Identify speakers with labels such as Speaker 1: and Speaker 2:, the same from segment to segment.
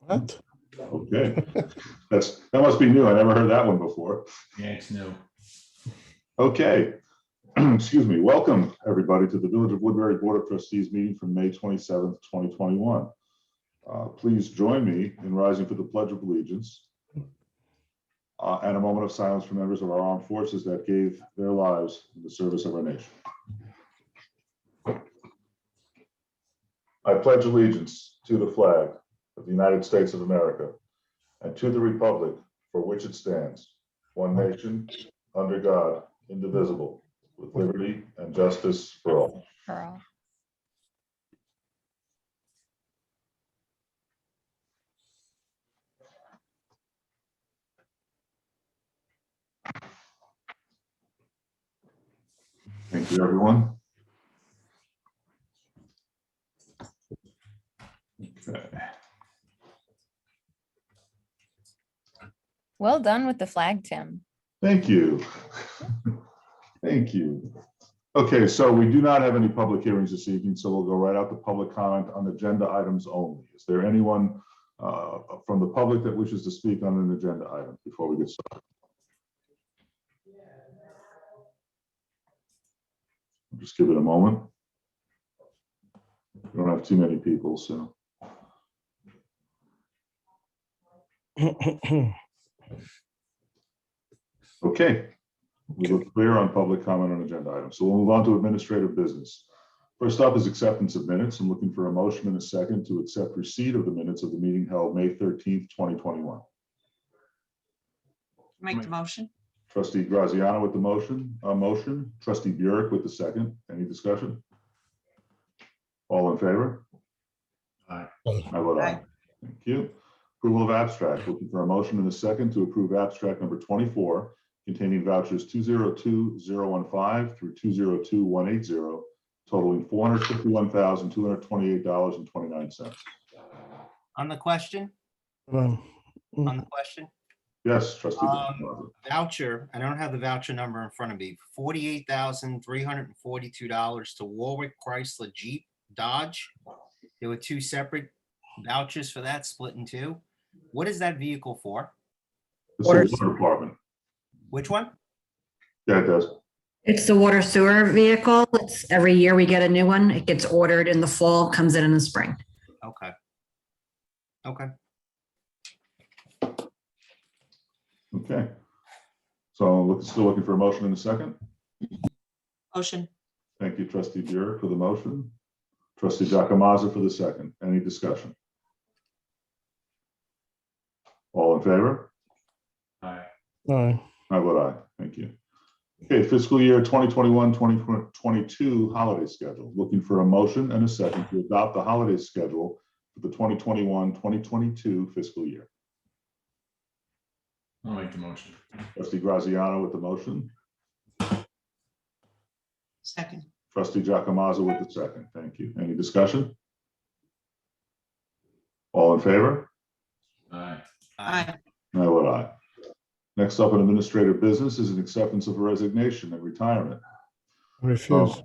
Speaker 1: What?
Speaker 2: Okay, that's, that must be new. I never heard that one before.
Speaker 3: Yeah, it's new.
Speaker 2: Okay. Excuse me. Welcome, everybody, to the Village of Woodbury Board of Trustees meeting from May twenty-seventh, twenty twenty-one. Uh, Please join me in rising for the Pledge of Allegiance. uh, And a moment of silence for members of our armed forces that gave their lives in the service of our nation. I pledge allegiance to the flag of the United States of America and to the republic for which it stands, one nation, under God, indivisible, with liberty and justice for all.
Speaker 4: for all.
Speaker 2: Thank you, everyone. Okay.
Speaker 4: Well done with the flag, Tim.
Speaker 2: Thank you. Thank you. Okay, so we do not have any public hearings this evening, so we'll go right out to public comment on agenda items only. Is there anyone uh, from the public that wishes to speak on an agenda item before we get started? Just give it a moment. We don't have too many people, so. Okay. We were clear on public comment on agenda items, so we'll move on to administrative business. First up is acceptance of minutes. I'm looking for a motion and a second to accept receipt of the minutes of the meeting held May thirteenth, twenty twenty-one.
Speaker 5: Make the motion.
Speaker 2: Trustee Graziano with the motion, uh motion, trustee Burek with the second. Any discussion? All in favor?
Speaker 3: Aye.
Speaker 2: I vote aye. Thank you. Approval of abstract, looking for a motion and a second to approve abstract number twenty-four containing vouchers two zero two zero one five through two zero two one eight zero totaling four hundred fifty-one thousand, two hundred twenty-eight dollars and twenty-nine cents.
Speaker 6: On the question,
Speaker 1: Hold
Speaker 6: on
Speaker 1: on.
Speaker 6: the question,
Speaker 2: Yes, trustee.
Speaker 6: Um,
Speaker 2: Graziano.
Speaker 6: voucher, I don't have the voucher number in front of me, forty-eight thousand, three hundred and forty-two dollars to Warwick Chrysler Jeep Dodge. There were two separate vouchers for that, split in two. What is that vehicle for?
Speaker 2: This is the water department.
Speaker 6: Which one?
Speaker 2: Yeah, it does.
Speaker 7: It's the water sewer vehicle. It's every year we get a new one. It gets ordered in the fall, comes in in the spring.
Speaker 6: Okay, Uh,
Speaker 2: Okay. So look- still looking for a motion in a second.
Speaker 5: Motion.
Speaker 2: Thank you, trustee Burek for the motion. Trustee Jacomaza for the second. Any discussion? All in favor?
Speaker 3: Aye.
Speaker 1: Aye.
Speaker 2: I vote aye. Thank you. Okay, fiscal year 2021, 2022 holiday schedule. Looking for a motion and a second to adopt the holiday schedule for the 2021, 2022 fiscal year.
Speaker 3: I'll make the motion.
Speaker 2: Trustee Graziano with the motion.
Speaker 5: Second.
Speaker 2: Trustee Jacomaza with the second. Thank you. Any discussion? All in favor?
Speaker 3: Aye.
Speaker 5: Aye.
Speaker 2: I vote aye. Next up in administrative business is an acceptance of a resignation and retirement.
Speaker 1: Refuse.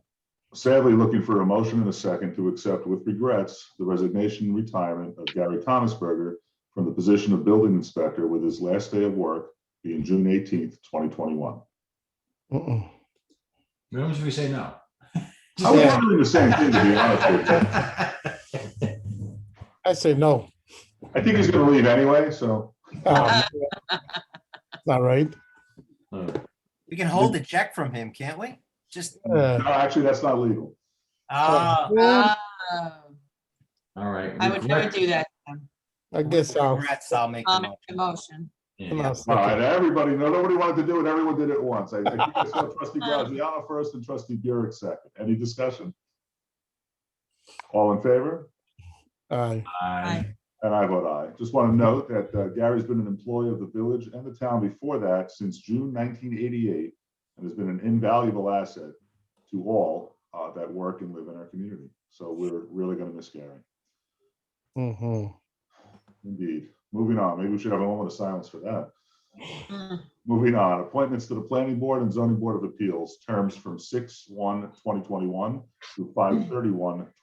Speaker 2: Sadly, looking for a motion and a second to accept with regrets the resignation and retirement of Gary Thomasberger from the position of building inspector with his last day of work being June eighteenth, twenty twenty-one. Oh.
Speaker 1: Mm-mm.
Speaker 3: When should we say no?
Speaker 2: I was wondering the same thing, to be honest with you.
Speaker 1: I say no.
Speaker 2: I think he's gonna leave anyway, so
Speaker 1: Um, Not right.
Speaker 3: Uh,
Speaker 6: we can hold the check from him, can't we? Just,
Speaker 1: Uh,
Speaker 2: no, actually, that's not legal.
Speaker 6: ah,
Speaker 1: well,
Speaker 5: Um,
Speaker 3: All right.
Speaker 5: I would never do that.
Speaker 1: I guess I'll.
Speaker 6: congrats, I'll make
Speaker 5: I'll
Speaker 6: the
Speaker 5: make the
Speaker 6: motion.
Speaker 5: motion.
Speaker 1: and
Speaker 3: Yeah.
Speaker 1: I'll
Speaker 2: All
Speaker 1: second.
Speaker 2: right, everybody, no, nobody wanted to do it, everyone did it once. I I think I saw trustee Graziano first and trustee Burek second. Any discussion? All in favor?
Speaker 1: Aye.
Speaker 3: Aye.
Speaker 2: And I vote aye. Just want to note that uh, Gary's been an employee of the village and the town before that since June 1988 and has been an invaluable asset to all uh, that work and live in our community. So we're really going to miss Gary.
Speaker 1: Mhm.
Speaker 2: Indeed. Moving on, maybe we should have a moment of silence for that.
Speaker 5: Mm,
Speaker 2: Moving on, appointments to the Planning Board and Zoning Board of Appeals, terms from 6/1/2021 through 5/31/2022.